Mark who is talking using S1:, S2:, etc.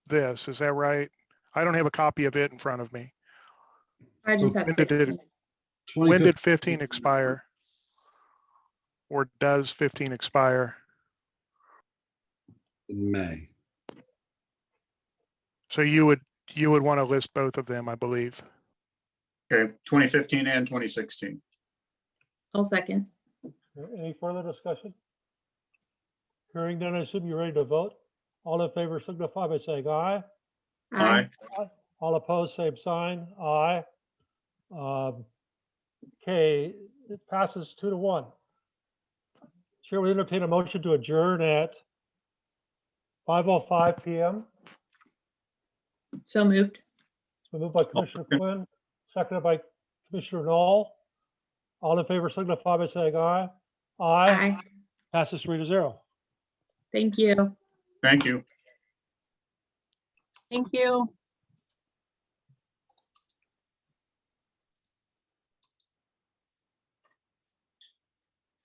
S1: this, is that right? I don't have a copy of it in front of me.
S2: I just have
S1: When did it-
S2: 16.
S1: When did fifteen expire? Or does fifteen expire?
S3: In May.
S1: So you would, you would want to list both of them, I believe.
S4: Okay, twenty fifteen and twenty sixteen.
S2: I'll second.
S5: Any further discussion? Hearing none, I assume you're ready to vote. All in favor signify by saying aye.
S4: Aye,
S5: All opposed, same sign, aye. Um, Okay, it passes two to one. Chair will entertain a motion to adjourn at 5:05 PM.
S2: So moved.
S5: It's been moved by Commissioner Quinn, seconded by Commissioner Knoll. All in favor signify by saying aye. Aye,
S2: Aye.
S5: passes three to zero.
S2: Thank you.
S4: thank you.
S6: Thank you.